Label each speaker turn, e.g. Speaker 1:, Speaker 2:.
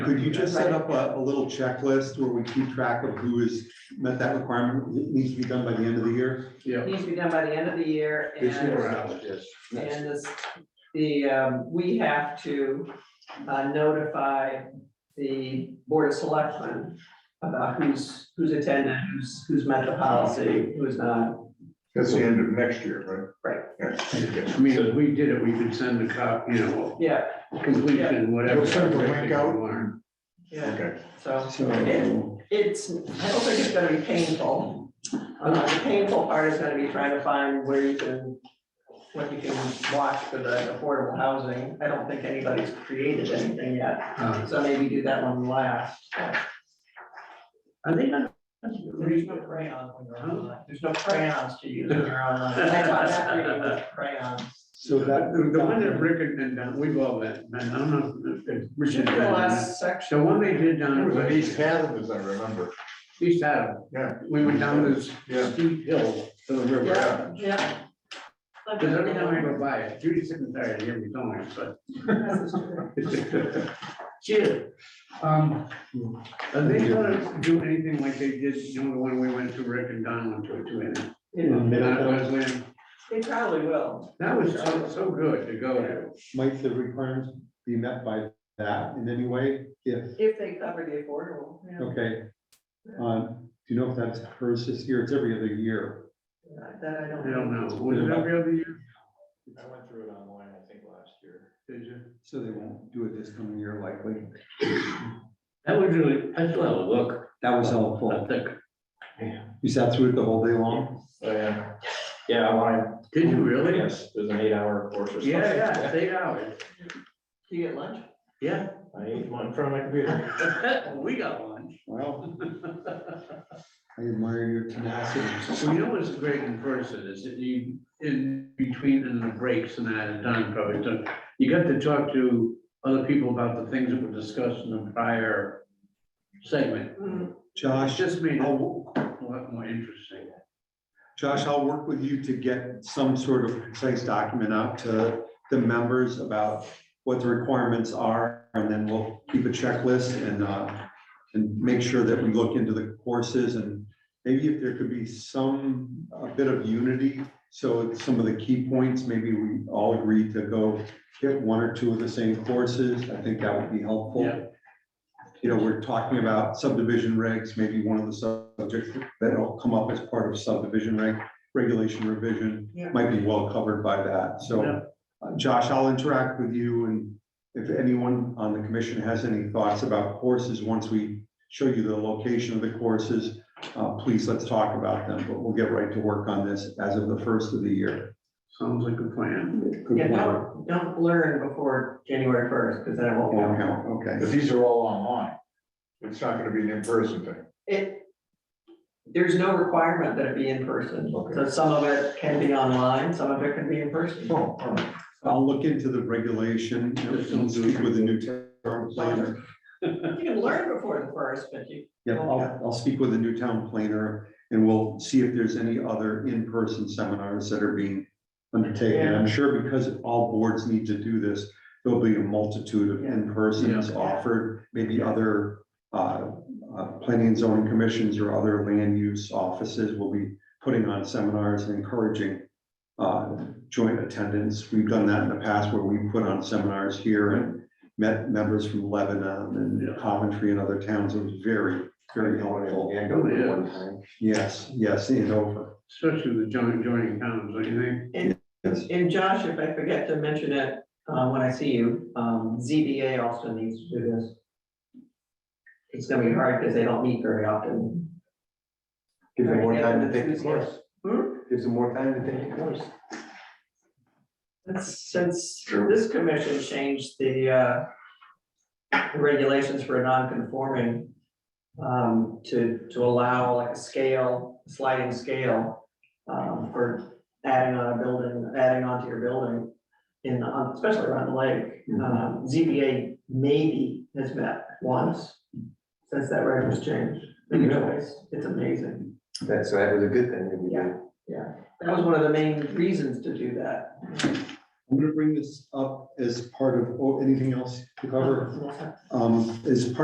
Speaker 1: Could you just set up a, a little checklist where we keep track of who has met that requirement? It needs to be done by the end of the year.
Speaker 2: Yeah.
Speaker 3: Needs to be done by the end of the year
Speaker 1: This
Speaker 3: and,
Speaker 1: year.
Speaker 3: and this, the, um, we have to uh, notify the board of selectmen about who's, who's attended, who's, who's met the policy, who's not.
Speaker 4: That's the end of next year, right? Right.
Speaker 2: I mean, if we did it, we could send a copy, you know,
Speaker 3: Yeah,
Speaker 2: completion, whatever.
Speaker 4: You'll send the link out?
Speaker 2: Warren.
Speaker 3: yeah,
Speaker 4: Okay.
Speaker 3: so
Speaker 1: So,
Speaker 3: it's, I don't think it's gonna be painful. Uh, the painful part is gonna be trying to find where you can, what you can watch for the affordable housing. I don't think anybody's created anything yet.
Speaker 2: Uh,
Speaker 3: So maybe do that one last. Are they not? There's no crayons when you're online. There's no crayons to use when you're online. I thought that reading was crayons.
Speaker 1: so that.
Speaker 2: The the one that Rick had been done, we've all been, been- I don't know. if- if Richard's
Speaker 3: The
Speaker 2: been on that.
Speaker 3: last section.
Speaker 2: The one they did down.
Speaker 4: It was
Speaker 2: at
Speaker 4: an East Adam, as I remember.
Speaker 2: East Adam.
Speaker 4: Yeah.
Speaker 2: We went down this
Speaker 4: Yeah.
Speaker 2: steep hill to the river.
Speaker 3: Yeah, yeah.
Speaker 2: Because every time I go by it, Judy's sitting there, and hear me going, but. Cheers. Um, are they gonna do anything like they did, you know, the one we went to, Rick and Don went to, it too, and-
Speaker 3: Yeah,
Speaker 2: Not Wesleyan?
Speaker 3: They probably will.
Speaker 2: That was so, so good to
Speaker 3: Oh,
Speaker 2: go to.
Speaker 1: Might the requirements be met by that in any way? If,
Speaker 3: If they cover the affordable, yeah.
Speaker 1: okay. Um, do you know if that's hers this year? It's every other year.
Speaker 3: That I
Speaker 2: I
Speaker 3: don't know.
Speaker 2: don't know, was it every other year?
Speaker 5: I went through it online, I think, last year.
Speaker 2: Did you?
Speaker 1: So they won't do it this coming year likely.
Speaker 6: That would really, I still have a look,
Speaker 1: That was
Speaker 6: I
Speaker 1: helpful.
Speaker 6: think.
Speaker 1: You sat through it the whole day long?
Speaker 5: Oh, yeah. Yeah, online,
Speaker 2: Did you really?
Speaker 5: yes, it was an eight hour course or something.
Speaker 2: Yeah, yeah, it's eight hours,
Speaker 3: Do you get lunch?
Speaker 2: yeah.
Speaker 5: I ate one in front of my computer.
Speaker 2: We got lunch.
Speaker 1: Well. I admire your tenacity.
Speaker 2: Well, you know what's great in person is that you, in between and the breaks and that, and time probably, so you got to talk to other people about the things that were discussed in the prior segment.
Speaker 3: Mm-hmm.
Speaker 2: It's
Speaker 1: Josh,
Speaker 2: just made it a lot more interesting.
Speaker 1: Josh, I'll work with you to get some sort of concise document out to the members about what the requirements are, and then we'll keep a checklist and, uh, and make sure that we look into the courses and maybe if there could be some, a bit of unity, so it's some of the key points, maybe we all agree to go get one or two of the same courses, I think that would be
Speaker 2: Yeah.
Speaker 1: helpful. You know, we're talking about subdivision regs, maybe one of the subjects that'll come up as part of subdivision reg, regulation revision
Speaker 3: Yeah.
Speaker 1: might be well covered by that, so.
Speaker 2: Yeah.
Speaker 1: uh, Josh, I'll interact with you and if anyone on the commission has any thoughts about courses, once we show you the location of the courses, uh, please let's talk about them, but we'll get right to work on this as of the first of the year.
Speaker 2: Sounds like a plan.
Speaker 1: Good
Speaker 3: Yeah,
Speaker 1: plan.
Speaker 3: don't, don't learn before January first, because then it won't
Speaker 1: Won't
Speaker 3: count.
Speaker 1: count, okay.
Speaker 4: But these are all online. It's not gonna be an in-person thing.
Speaker 3: It, there's no requirement that it be in person, so some of it can be online, some of it can be in person.
Speaker 4: Oh, all right.
Speaker 1: I'll look into the regulation, you know, and speak with the new town planner.
Speaker 3: You can learn before the first, but you,
Speaker 1: Yeah, I'll, I'll speak with the new town planner and we'll see if there's any other in-person seminars that are being undertaken. I'm sure because all boards need to do this, there'll be a multitude of in-persons offered, maybe other uh, uh, planning and zoning commissions or other land use offices will be putting on seminars and encouraging uh, joint attendance. We've done that in the past where we put on seminars here and met members from Lebanon and Coventry and other towns. It was very, very helpful.
Speaker 2: Yeah.
Speaker 1: Yes, yes, and over.
Speaker 2: Especially the joint, joining towns, don't you think?
Speaker 1: Yes.
Speaker 3: and Josh, if I forget to mention it, uh, when I see you, um, ZBA also needs to do this. It's gonna be hard because they don't meet very often.
Speaker 5: Give
Speaker 3: them more time to take the course. Hmm?
Speaker 5: Gives them more time to take the course.
Speaker 3: Since, since this commission changed the, uh, the regulations for a non-conforming, um, to, to allow like a scale, sliding scale, um, for adding on a building, adding onto your building in, on- especially around the lake, um, ZBA maybe has met once since that reg was changed. But anyways, it's amazing.
Speaker 5: That's, so that was a good thing that we did.
Speaker 3: That was one of the main reasons to do that.
Speaker 1: I'm gonna bring this up as part of, oh, anything else to cover? Um, as part